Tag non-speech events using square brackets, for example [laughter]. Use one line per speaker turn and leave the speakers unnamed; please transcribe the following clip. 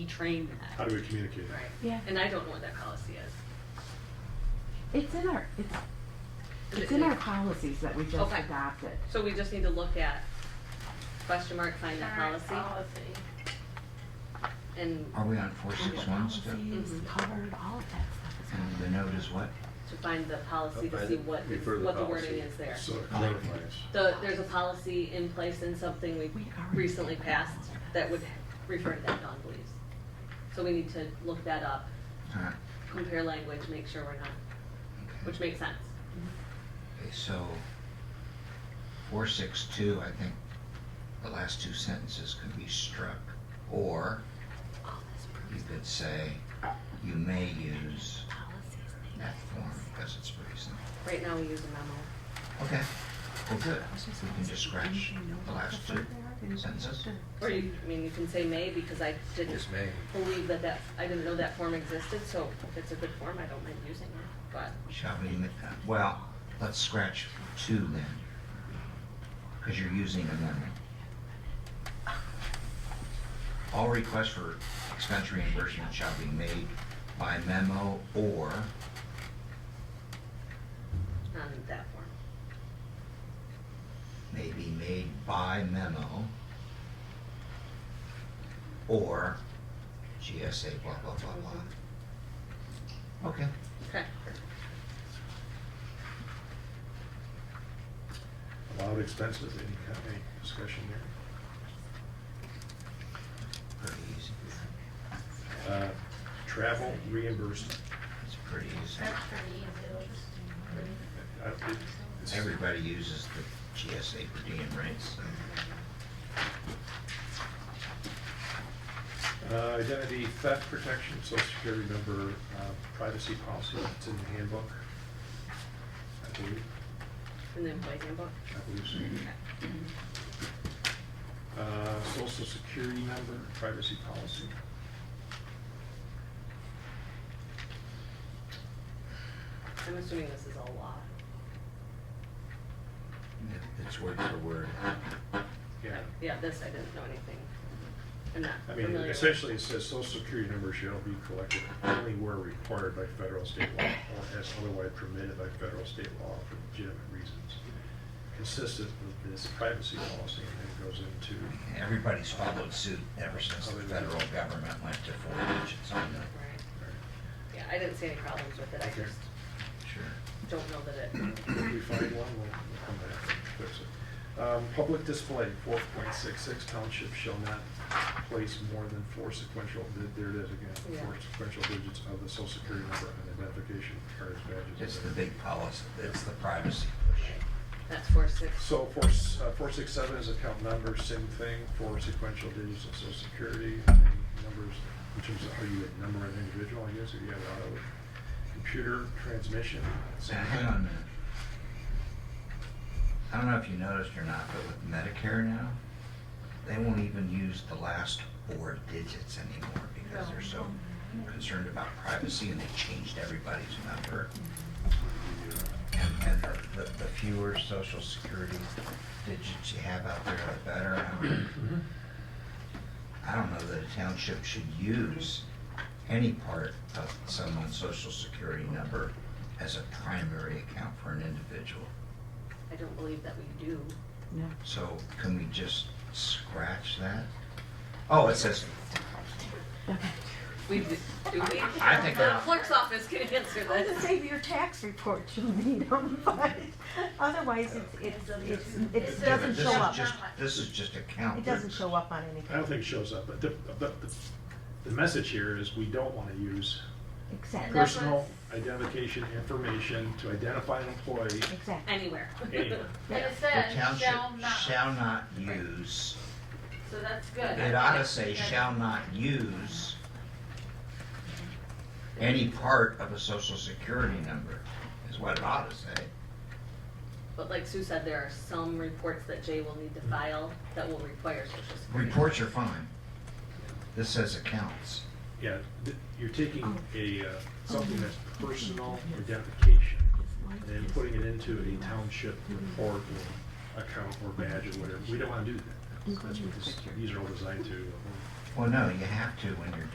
be trained at.
How do we communicate
Right.
that?
Yeah.
And I don't know what that policy is.
It's in our, it's,
Is
it's
it-
in our policies that we just
Okay.
adopted.
So we just need to look at, question mark, find that
Current
policy
Oh.
and
Are we on four six one still?
Mm-hmm.
Policies
Mhm.
covered, all of that stuff is
And
covered.
the note is what?
to find the policy to
Find
see
it,
what,
refer to
what the
policy.
wording is there.
So it clarifies.
The, there's a policy in place in something we
We already
recently
did that.
passed that would refer to that non-beliefs. So we need to look that up,
Huh,
compare language, make sure we're not,
okay.
which makes sense.
Okay, so four six two, I think the last two sentences could be struck. Or Mm-hmm. you could say, you may use that form because it's pretty simple.
Right now, we use a memo.
Okay, well, good. We can just scratch the last two sentences.
Or you, I mean, you can say may because I didn't
Yes, may.
believe that that, I didn't know that form existed, so if it's a good form, I don't mind using it, but.
Shall we, ma- well, let's scratch two then. Because you're using amendment. All requests for expense reimbursement shall be made by memo or,
on that form.
may be made by memo or GSA blah, blah, blah, blah. Okay,
Okay.
Allowed expenses, any, kind any discussion there?
pretty easy.
Uh, Travel reimbursement.
It's pretty easy.
That's pretty easy.
Uh, it- it's-
Everybody uses the GSA per diem, right? So-
Uh, Identity theft protection, social security number, uh, privacy policy, it's in the handbook. I believe,
In the employee handbook.
I believe so. Uh, Social security number, privacy policy.
I'm assuming this is all law.
It- It's word for word.
Yeah.
Yeah, this, I didn't know anything. I'm not
I mean,
familiar with.
essentially, it says social security numbers shall be collected only where required by federal, state law, or as otherwise permitted by federal, state law for legitimate reasons, consistent with this privacy policy, and then it goes into,
Everybody's followed suit ever since the federal government went to four digits on
Right.
the.
Yeah, I didn't see any problems with it, I
Okay.
just
Sure.
don't know that it,
[clears throat] if we find one, we'll we'll come back and fix it. Um, Public display, four point six six, township shall not place more than four sequential, there it is again,
Yeah.
four sequential digits of the social security number on identification cards, badges.
It's the
and-
big policy, it's the privacy push.
that's four six.
So four, s- uh, four six seven is account number, same thing, four sequential digits of social security, and numbers, in terms of how you would number an individual, I guess, if you have auto computer transmission.
So
same
hang
thing.
on a minute. I don't know if you noticed or not, but with Medicare now, they won't even use the last four digits anymore because they're so concerned about privacy and they changed everybody's number. And, and the- the, the fewer social security digits you have out there, the better. I don't- I don't know that a township should use any part of someone's social security number as a primary account for an individual.
I don't believe that we do.
No,
So can we just scratch that? Oh, it says,
okay.
We do, do we?
I think
The
I-
clerk's office can answer
I was gonna
this.
say your tax report you'll need them, [laughs] but otherwise it's, it's, it's, it doesn't
this is
show up.
just, this is just account.
It doesn't show up on anything.
I don't think it shows up, but the, but the, the message here is we don't wanna use
And that's
Exactly,
personal
what's-
identification information to identify an employee
exactly.
Anywhere.
anywhere.
And it
The
says, shall
township
not,
shall not use,
so that's good.
it ought to say shall not use any part of a social security number, is what it ought to say.
But like Sue said, there are some reports that Jay will need to file that will require social security.
Reports are fine. This says accounts.
Yeah, th- you're taking a, uh, something that's
[laughs]
personal identification and then putting it into a township report or account or badge or whatever. We don't wanna do that. That's what this, these are all designed to. uh,
Well, no, you have to when you're